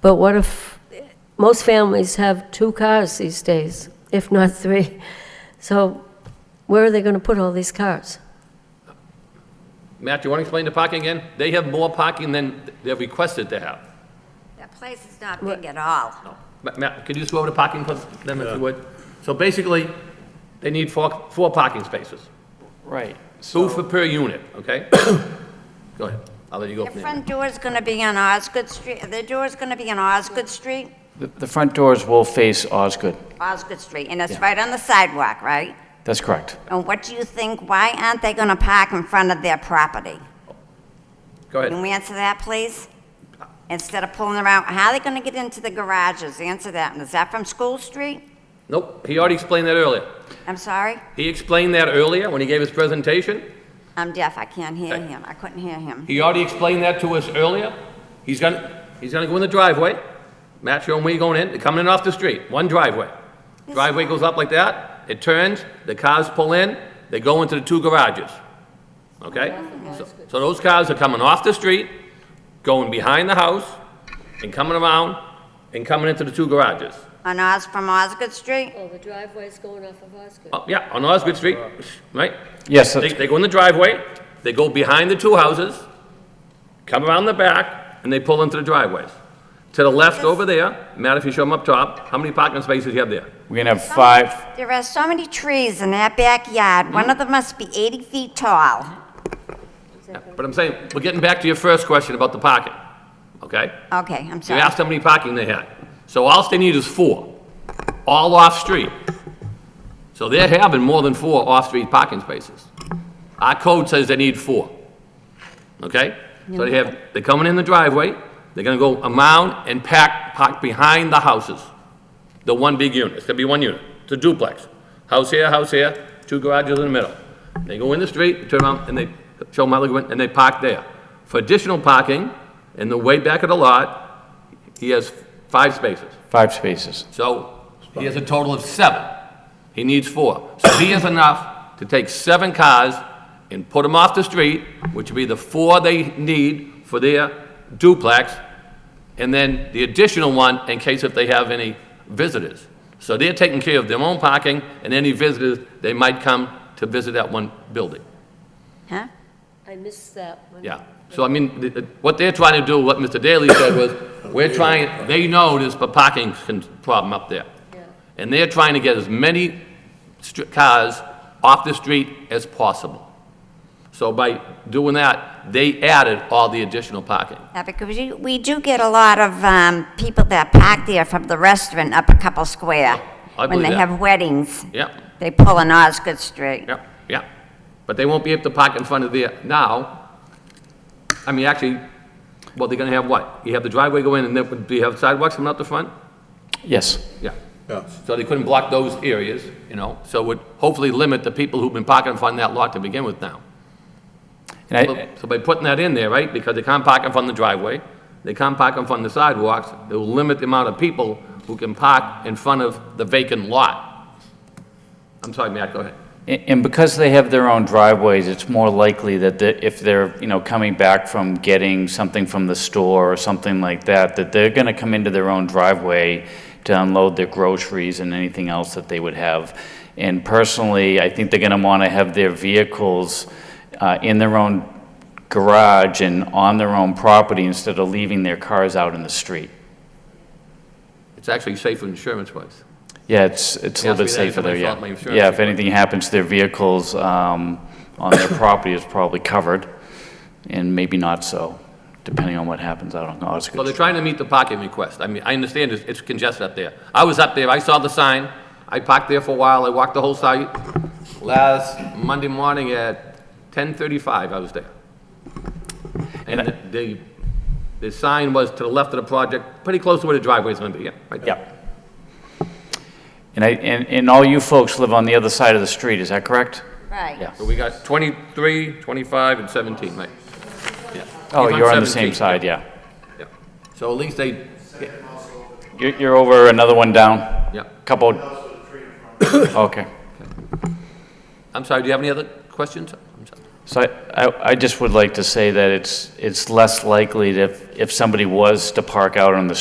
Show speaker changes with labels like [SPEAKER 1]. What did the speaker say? [SPEAKER 1] But what if, most families have two cars these days, if not three. So where are they going to put all these cars?
[SPEAKER 2] Matt, you want to explain the parking again? They have more parking than they're requested to have.
[SPEAKER 3] That place is not big at all.
[SPEAKER 2] No. Ma- Matt, could you just go over the parking for them if you would? So basically, they need four, four parking spaces,
[SPEAKER 4] Right.
[SPEAKER 2] two for per unit, okay? Go ahead, I'll let you go
[SPEAKER 3] The
[SPEAKER 2] from there.
[SPEAKER 3] front door's gonna be on Osgood Street, the door's gonna be on Osgood Street,
[SPEAKER 4] The, the front doors will face Osgood.
[SPEAKER 3] Osgood Street, and it's
[SPEAKER 4] Yeah.
[SPEAKER 3] right on the sidewalk, right?
[SPEAKER 4] That's correct.
[SPEAKER 3] And what do you think, why aren't they gonna park in front of their property?
[SPEAKER 2] Go
[SPEAKER 3] Can
[SPEAKER 2] ahead.
[SPEAKER 3] we answer that, please? Instead of pulling around, how are they gonna get into the garages? Answer that, and is that from School Street?
[SPEAKER 2] Nope, he already explained that earlier.
[SPEAKER 3] I'm sorry,
[SPEAKER 2] He explained that earlier when he gave his presentation.
[SPEAKER 3] I'm deaf, I can't hear
[SPEAKER 2] Okay.
[SPEAKER 3] him, I couldn't hear him.
[SPEAKER 2] He already explained that to us earlier. He's gonna, he's gonna go in the driveway. Matt, show him where you're going in, They're coming in off the street, one driveway. Driveway goes up like that, it turns, the cars pull in, they go into the two garages. Okay? So- So those cars are coming off the street, going behind the house, and coming around, and coming into the two garages.
[SPEAKER 3] On Os, from Osgood Street?
[SPEAKER 1] Oh, the driveway's going off of Osgood.
[SPEAKER 2] Oh, Yeah, on Osgood Street, right?
[SPEAKER 4] Yes,
[SPEAKER 2] They,
[SPEAKER 4] that's,
[SPEAKER 2] they go in the driveway, they go behind the two houses, come around the back, and they pull into the driveways. To the left over there, Matt, if you show them up top, how many parking spaces you have there?
[SPEAKER 4] we're gonna have five,
[SPEAKER 3] There are so many trees in that backyard, one of them must be 80 feet tall.
[SPEAKER 2] Yeah, But I'm saying, we're getting back to your first question about the parking, okay?
[SPEAKER 3] Okay, I'm
[SPEAKER 2] You
[SPEAKER 3] sorry.
[SPEAKER 2] asked how many parking they had. So all they need is four, all off-street. So they're having more than four off-street parking spaces. Our code says they need four. Okay? So they have, they're coming in the driveway, they're gonna go around and pack, park behind the houses. The one big unit, it's gonna be one unit, it's a duplex. House here, house here, two garages in the middle. They go in the street, turn around, and they show them how they go in, and they park there. For additional parking, in the way back of the lot, he has five spaces.
[SPEAKER 4] five spaces.
[SPEAKER 2] So he has a total of seven. He needs four. So he has enough to take seven cars and put them off the street, which would be the four they need for their duplex, and then the additional one in case if they have any visitors. So they're taking care of their own parking and any visitors, they might come to visit that one building.
[SPEAKER 3] Huh?
[SPEAKER 1] I missed that one.
[SPEAKER 2] Yeah, so I mean, th- th- what they're trying to do, what Mr. Daly said was, we're trying, they know there's a parking con- problem up there. And they're trying to get as many str- cars off the street as possible. So by doing that, they added all the additional parking.
[SPEAKER 3] Yeah, because you- we do get a lot of um, people that park there from the restaurant up a couple square.
[SPEAKER 2] I
[SPEAKER 3] When they
[SPEAKER 2] believe that.
[SPEAKER 3] have weddings,
[SPEAKER 2] Yeah,
[SPEAKER 3] they pull on Osgood Street.
[SPEAKER 2] yeah, yeah. But they won't be able to park in front of there now. I mean, actually, well, they're gonna have what? You have the driveway go in and then, do you have sidewalks coming out the front?
[SPEAKER 4] Yes,
[SPEAKER 2] Yeah. So they couldn't block those areas, you know, so it would hopefully limit the people who've been parking in front of that lot to begin with now.
[SPEAKER 4] and I,
[SPEAKER 2] So by putting that in there, right, because they can't park in front of the driveway, they can't park in front of the sidewalks, it will limit the amount of people who can park in front of the vacant lot. I'm sorry, Matt, go ahead.
[SPEAKER 4] A- And because they have their own driveways, it's more likely that the- if they're, you know, coming back from getting something from the store or something like that, that they're going to come into their own driveway to unload their groceries and anything else that they would have. And personally, I think they're going to want to have their vehicles uh, in their own garage and on their own property instead of leaving their cars out in the street.
[SPEAKER 2] It's actually safer insurance-wise.
[SPEAKER 4] Yeah, it's, it's a
[SPEAKER 2] Yeah,
[SPEAKER 4] little bit
[SPEAKER 2] it's really
[SPEAKER 4] safer
[SPEAKER 2] nice
[SPEAKER 4] there,
[SPEAKER 2] if
[SPEAKER 4] yeah.
[SPEAKER 2] they thought my
[SPEAKER 4] Yeah, if
[SPEAKER 2] insurance-
[SPEAKER 4] anything happens to their vehicles um, on their property, it's probably covered, and maybe not so, depending on what happens out on
[SPEAKER 2] Well, they're
[SPEAKER 4] Osgood.
[SPEAKER 2] trying to meet the parking request. I mean, I understand it's- it's congested up there. I was up there, I saw the sign, I parked there for a while, I walked the whole site. Last Monday morning at 10:35, I was there. And the- the, the sign was to the left of the project, pretty close to where the driveway's gonna be, yeah, right there.
[SPEAKER 4] Yeah. And I, and, and all you folks live on the other side of the street, is that correct? Oh,
[SPEAKER 3] Right.
[SPEAKER 4] Yeah.
[SPEAKER 2] So we got 23, 25, and 17, right? Yeah.
[SPEAKER 4] Oh,
[SPEAKER 2] He's
[SPEAKER 4] you're on the same
[SPEAKER 2] 17,
[SPEAKER 4] side, yeah.
[SPEAKER 2] yeah. So at least they,
[SPEAKER 4] You're, you're over another one down,
[SPEAKER 2] yeah.
[SPEAKER 4] couple. Okay.
[SPEAKER 2] I'm sorry, do you have any other questions? I'm sorry.
[SPEAKER 4] So I- I, I just would like to say that it's, it's less likely that if, if somebody was to park out on the